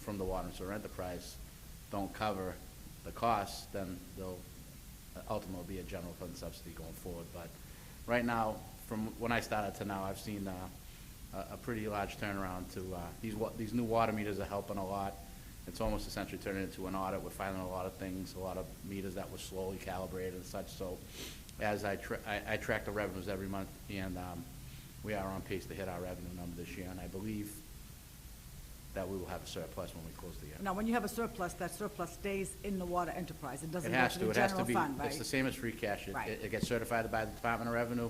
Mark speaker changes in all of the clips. Speaker 1: from the water and sewer enterprise don't cover the costs, then they'll ultimately be a general fund subsidy going forward. But right now, from when I started to now, I've seen uh, a, a pretty large turnaround to, uh, these wa, these new water meters are helping a lot. It's almost essentially turning into an audit. We're finding a lot of things, a lot of meters that were slowly calibrated and such. So as I tra, I, I track the revenues every month and, um, we are on pace to hit our revenue number this year. And I believe that we will have a surplus when we close the year.
Speaker 2: Now, when you have a surplus, that surplus stays in the water enterprise. It doesn't
Speaker 1: It
Speaker 2: go
Speaker 1: has
Speaker 2: to
Speaker 1: to,
Speaker 2: the
Speaker 1: it has to
Speaker 2: general
Speaker 1: be,
Speaker 2: fund,
Speaker 1: it's the
Speaker 2: right?
Speaker 1: same as free cash. It-
Speaker 2: Right.
Speaker 1: It, it gets certified by the Department of Revenue,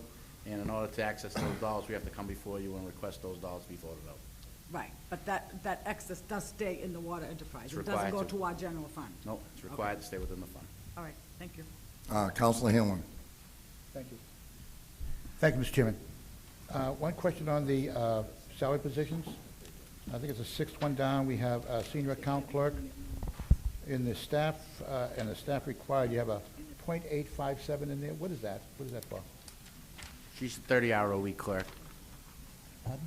Speaker 1: and in order to access those dollars, we have to come before you and request those dollars be voted out.
Speaker 2: Right, but that, that excess does stay in the water enterprise.
Speaker 1: It's
Speaker 2: It doesn't
Speaker 1: required
Speaker 2: go
Speaker 1: to.
Speaker 2: to our general fund.
Speaker 1: No, it's required to stay within the fund.
Speaker 2: All right, thank you.
Speaker 3: Uh, Counselor Hanlon.
Speaker 4: Thank you. Thank you, Mr. Chairman. Uh, One question on the uh, salary positions. I think it's the sixth one down. We have uh, senior account clerk. In the staff, uh, and the staff required, you have a .857 in there. What is that? What is that for?
Speaker 1: She's a thirty-hour-a-week clerk.
Speaker 4: Pardon?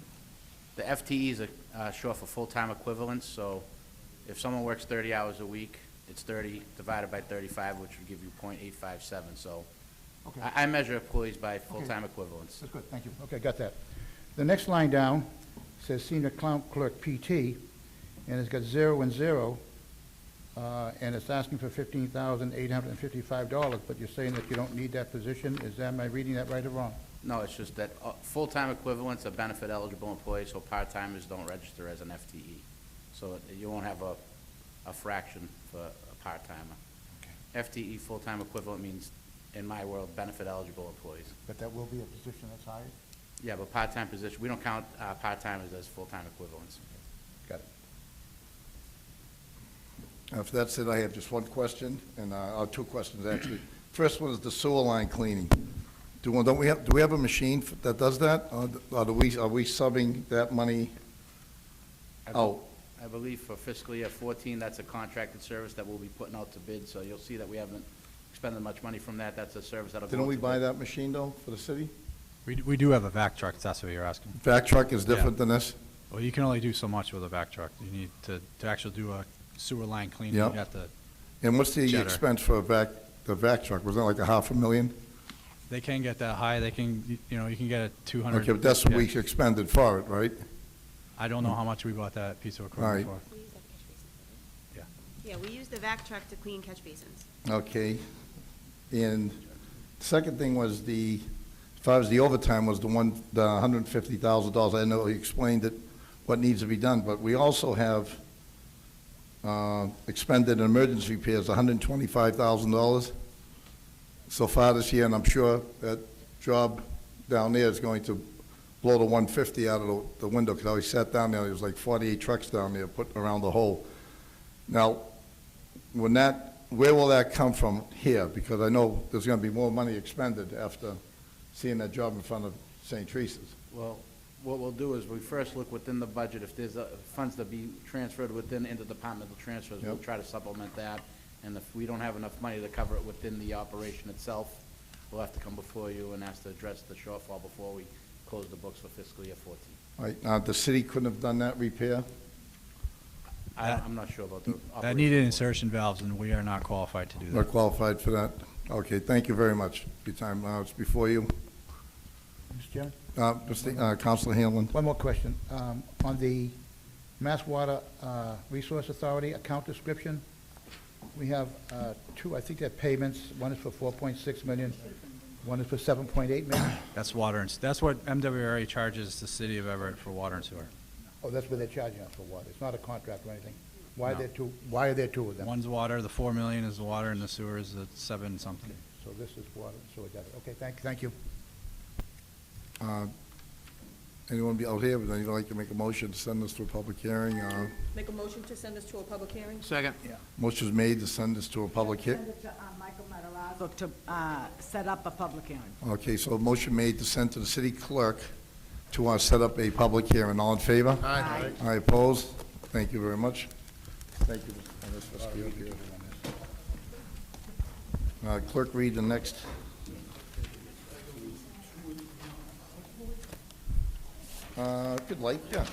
Speaker 1: The FTEs are, uh, short for full-time equivalents, so if someone works thirty hours a week, it's thirty divided by thirty-five, which would give you point eight five seven, so.
Speaker 4: Okay.
Speaker 1: I, I measure employees by full-time equivalents.
Speaker 4: That's good, thank you. Okay, got that. The next line down says senior account clerk PT, and it's got zero and zero, uh, and it's asking for fifteen thousand eight hundred and fifty-five dollars, but you're saying that you don't need that position. Is that, am I reading that right or wrong?
Speaker 1: No, it's just that, uh, full-time equivalents are benefit-eligible employees, so part-timers don't register as an FTE. So it- you won't have a, a fraction for a part-timer. FTE, full-time equivalent, means, in my world, benefit-eligible employees.
Speaker 4: But that will be a position that's hired?
Speaker 1: Yeah, but part-time position, we don't count, uh, part-timers as full-time equivalents.
Speaker 4: Got it.
Speaker 3: After Uh, that said, I have just one question, and, uh, uh, two questions, actually. First one is the sewer line cleaning. Do, we- don't we have, do we have a machine f- that does that? Or d- Or do we, are we subbing that money
Speaker 1: I be-
Speaker 3: out?
Speaker 1: I believe for fiscal year fourteen, that's a contracted service that we'll be putting out to bid, so you'll see that we haven't expended much money from that. That's a service that'll go
Speaker 3: Didn't
Speaker 1: out
Speaker 3: we
Speaker 1: to
Speaker 3: buy
Speaker 1: bid.
Speaker 3: that machine, though, for the city?
Speaker 5: We, d- we do have a vac truck, if that's what you're asking.
Speaker 3: Vac truck is
Speaker 5: Yeah.
Speaker 3: different than this?
Speaker 5: Well, you can only do so much with a vac truck. You need to, to actually do a sewer line cleaning, you
Speaker 3: Yeah.
Speaker 5: have to,
Speaker 3: And what's the
Speaker 5: Jetter.
Speaker 3: expense for a vac, the vac truck? Was that like a half a million?
Speaker 5: they can get that high, they can, y- you know, you can get a two hundred.
Speaker 3: Okay, but that's what we expended for it, right?
Speaker 5: I don't know how much we bought that piece of
Speaker 3: Alright.
Speaker 5: equipment for.
Speaker 6: We use that catch basin, don't
Speaker 5: Yeah.
Speaker 6: we? Yeah, we use the vac truck to clean catch basins.
Speaker 3: Okay. And second thing was the, if I was the overtime was the one, the hundred and fifty thousand dollars. I know you explained it, what needs to be done, but we also have, uh, expended in emergency repairs, hundred and twenty-five thousand dollars so far this year, and I'm sure that job down there is going to blow the one fifty out of the, the window, because I always sat down there, there was like forty-eight trucks down there putting around the hole. Now, when that, where will that come from here? Because I know there's gonna be more money expended after seeing that job in front of St. Teresa's.
Speaker 1: Well, what we'll do is we first look within the budget, if there's uh, funds to be transferred within interdepartmental transfers, we'll
Speaker 3: Yep.
Speaker 1: try to supplement that. And if we don't have enough money to cover it within the operation itself, we'll have to come before you and ask to address the shortfall before we close the books for fiscal year fourteen.
Speaker 3: Right, now, the city couldn't have done that repair?
Speaker 1: I,
Speaker 5: That-
Speaker 1: I'm not sure about the operation.
Speaker 5: That needed insertion valves, and we are not qualified to do
Speaker 3: Not
Speaker 5: that.
Speaker 3: qualified for that? Okay, thank you very much for your time. Now, it's before you.
Speaker 4: Mr. Chairman?
Speaker 3: Uh, Mr. uh, Counselor Hanlon?
Speaker 4: One more question. Um, On the Mass Water uh, Resource Authority account description, we have uh, two, I think they're payments. One is for 4.6 million, one is for 7.8 million.
Speaker 5: That's water and, s- that's what MWRA charges the city of Everett for water and sewer.
Speaker 4: Oh, that's where they're charging us for water. It's not a contract or anything. Why are
Speaker 5: No.
Speaker 4: there two, why are there two of them?
Speaker 5: One's water, the four million is the water, and the sewer is the seven something.
Speaker 4: So this is water, so we got it. Okay, thank, thank you.
Speaker 3: Uh, Anyone be out here, would anyone like to make a motion to send this to a public hearing? Uh,
Speaker 7: Make a motion to send this to a public hearing?
Speaker 1: Second.
Speaker 3: Motion is made to send this to a public hea,
Speaker 2: Send it to, uh, Michael Matarazzo to uh, set up a public hearing.
Speaker 3: okay, so a motion made to send to the city clerk to uh, set up a public hearing. All in favor? Aye. Aye, opposed? Thank you very much. Thank you. Mr. Esposito. Uh, Clerk, read the next. Uh, Good light, yeah.